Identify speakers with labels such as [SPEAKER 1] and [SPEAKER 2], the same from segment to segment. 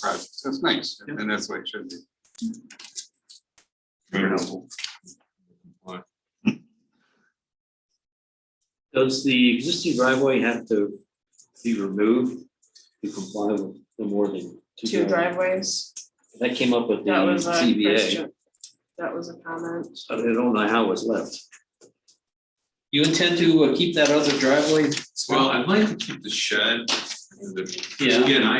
[SPEAKER 1] process. That's nice, and that's what it should be.
[SPEAKER 2] Very helpful.
[SPEAKER 3] Does the existing driveway have to be removed to comply with the more than two?
[SPEAKER 4] two
[SPEAKER 3] drive-
[SPEAKER 4] driveways.
[SPEAKER 3] That came up with the
[SPEAKER 4] That was uh, a
[SPEAKER 3] CBA.
[SPEAKER 4] question. That was a comment.
[SPEAKER 3] I don't know how it's left.
[SPEAKER 5] You intend to uh, keep that other driveway?
[SPEAKER 2] Well, I'd like to keep the shed, the, again, I,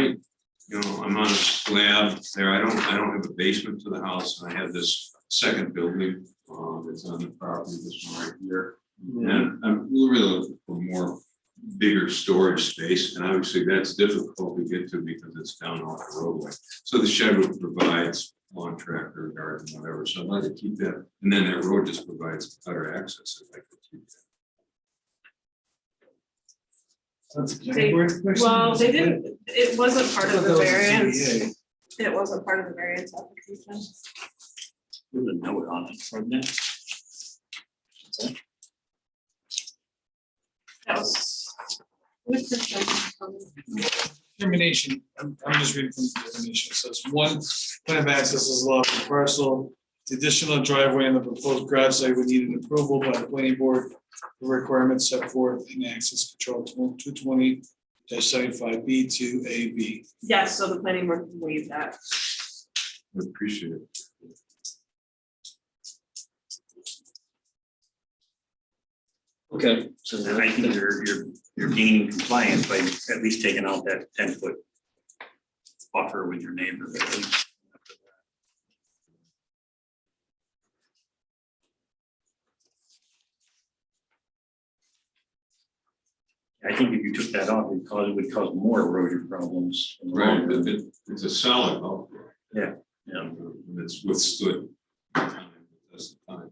[SPEAKER 2] you know, I'm on a slab there, I don't, I don't have a basement to the house, and I have this second building, um, that's on the property, this one right here. And I'm really looking for more bigger storage space, and obviously that's difficult to get to because it's down off the roadway. So the shed would provide lawn tractor, garden, whatever, so I'd like to keep that, and then that road just provides better access if I could keep that.
[SPEAKER 4] They- Well, they didn't, it wasn't part of the variance. It wasn't part of the variance application.
[SPEAKER 3] With a note on it from that.
[SPEAKER 4] That was. with the-
[SPEAKER 6] Termination, I'm, I'm just reading from the definition, so it's one, plan of access is allowed for parcel. The additional driveway and the proposed garage site would need an approval by the planning board, the requirements set forth in access control two twenty seventy-five B two A B.
[SPEAKER 4] Yes, so the planning board can waive that.
[SPEAKER 2] I appreciate it.
[SPEAKER 3] Okay, so
[SPEAKER 7] And I think you're, you're, you're gaining compliance by at least taking out that ten foot buffer with your neighbor. I think if you took that off, it cause, it would cause more erosion problems. in the long
[SPEAKER 2] Right,
[SPEAKER 7] run.
[SPEAKER 2] but it- it's a solid outfit.
[SPEAKER 7] Yeah, yeah.
[SPEAKER 2] And It's withstood. That's the time.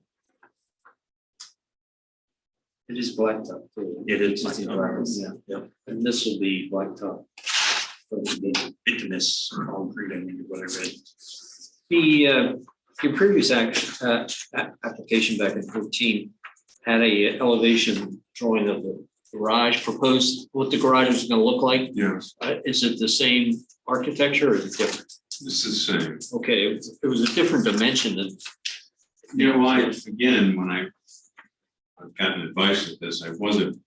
[SPEAKER 3] It is blacktop. too.
[SPEAKER 7] It is
[SPEAKER 3] It's a
[SPEAKER 7] blacktop.
[SPEAKER 3] driveway, Yeah, yeah. And this will be blacktop.
[SPEAKER 7] Bituminous concrete, I think, is what I read.
[SPEAKER 3] The, uh, your previous act, uh, a- application back in fourteen had a elevation drawing of the garage proposed, what the garage was gonna look like.
[SPEAKER 2] Yes,
[SPEAKER 3] Uh, is it the same architecture or is it different?
[SPEAKER 2] this is the same.
[SPEAKER 3] Okay, it was- it was a different dimension than.
[SPEAKER 2] You know, I, again, when I, I've gotten advice at this, I wasn't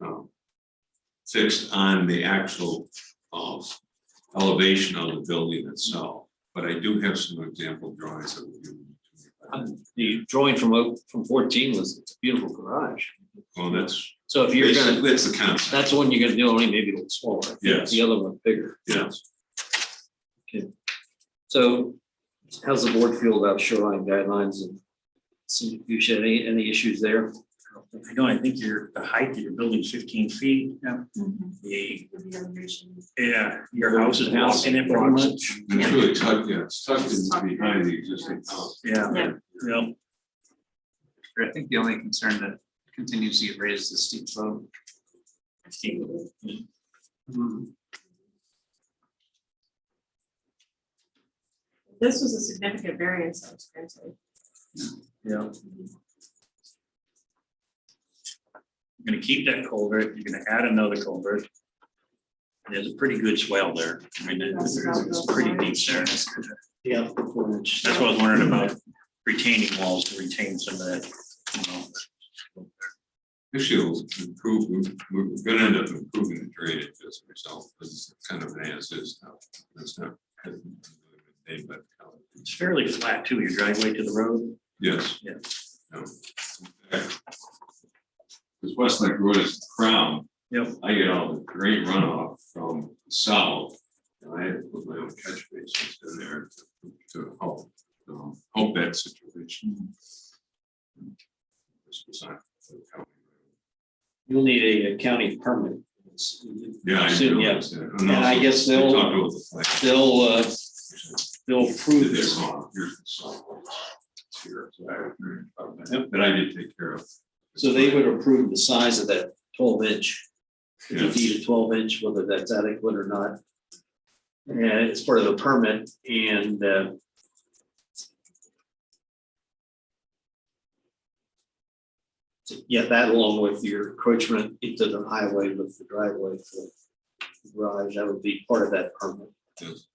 [SPEAKER 2] um, fixed on the actual um, elevation of the building itself, but I do have some example drawings that would
[SPEAKER 3] uh,
[SPEAKER 2] be.
[SPEAKER 3] The drawing from, o- from fourteen was it's a beautiful garage.
[SPEAKER 2] Well, that's,
[SPEAKER 3] So if you're gonna,
[SPEAKER 2] basically, that's the concept,
[SPEAKER 3] that's the one you're gonna do, only maybe a little smaller. I think
[SPEAKER 2] Yes.
[SPEAKER 3] The other one bigger.
[SPEAKER 2] yes.
[SPEAKER 3] So how's the board feel about shoreline guidelines and see, you should, any, any issues there?
[SPEAKER 7] I don't, I think your, the height of your building's fifteen feet. Yeah.
[SPEAKER 4] Mm-hmm.
[SPEAKER 7] The,
[SPEAKER 4] With the elevation.
[SPEAKER 7] yeah, your house is walking it pretty
[SPEAKER 3] Blocks.
[SPEAKER 7] much.
[SPEAKER 2] And It's really tucked, yeah, it's tucked in behind the existing house.
[SPEAKER 7] Yeah,
[SPEAKER 4] Yeah.
[SPEAKER 7] yeah.
[SPEAKER 5] I think the only concern that continues to get raised is the steep slope.
[SPEAKER 4] This was a significant variance that was granted.
[SPEAKER 7] Yeah. You're gonna keep that culvert, you're gonna add another culvert. There's a pretty good swell there, I mean, it's, it's pretty deep there, that's
[SPEAKER 3] Yeah. four inch.
[SPEAKER 7] what I was wondering about retaining walls to retain some of that, you know.
[SPEAKER 2] Actually, it'll improve, we're- we're gonna end up improving the drainage as a result, because it's kind of an as is now, that's not. hasn't been made by the county.
[SPEAKER 7] It's fairly flat too, your driveway to the road,
[SPEAKER 2] Yes.
[SPEAKER 7] Yeah.
[SPEAKER 2] Because Westlake Road is the crown.
[SPEAKER 7] Yep.
[SPEAKER 2] I get all the great runoff from south, and I had to put my own catch basins in there to- to help, um, help that situation. This was not for the county.
[SPEAKER 3] You'll need a county permit. It's-
[SPEAKER 2] Yeah, I
[SPEAKER 3] Soon, yeah.
[SPEAKER 2] realize that.
[SPEAKER 3] And I guess
[SPEAKER 2] We
[SPEAKER 3] they'll,
[SPEAKER 2] talked about the flag.
[SPEAKER 3] they'll, uh, they'll approve
[SPEAKER 2] They're
[SPEAKER 3] this.
[SPEAKER 2] wrong. Here's the south. It's here, so I agree about that. But I did take care of.
[SPEAKER 3] So they would approve the size of that twelve inch,
[SPEAKER 2] Yeah.
[SPEAKER 3] fifty feet to twelve inch, whether that's adequate or not. And it's part of the permit and, uh, yeah, that along with your encroachment into the highway with the driveway for the garage, that would be part of that permit.
[SPEAKER 2] Yes.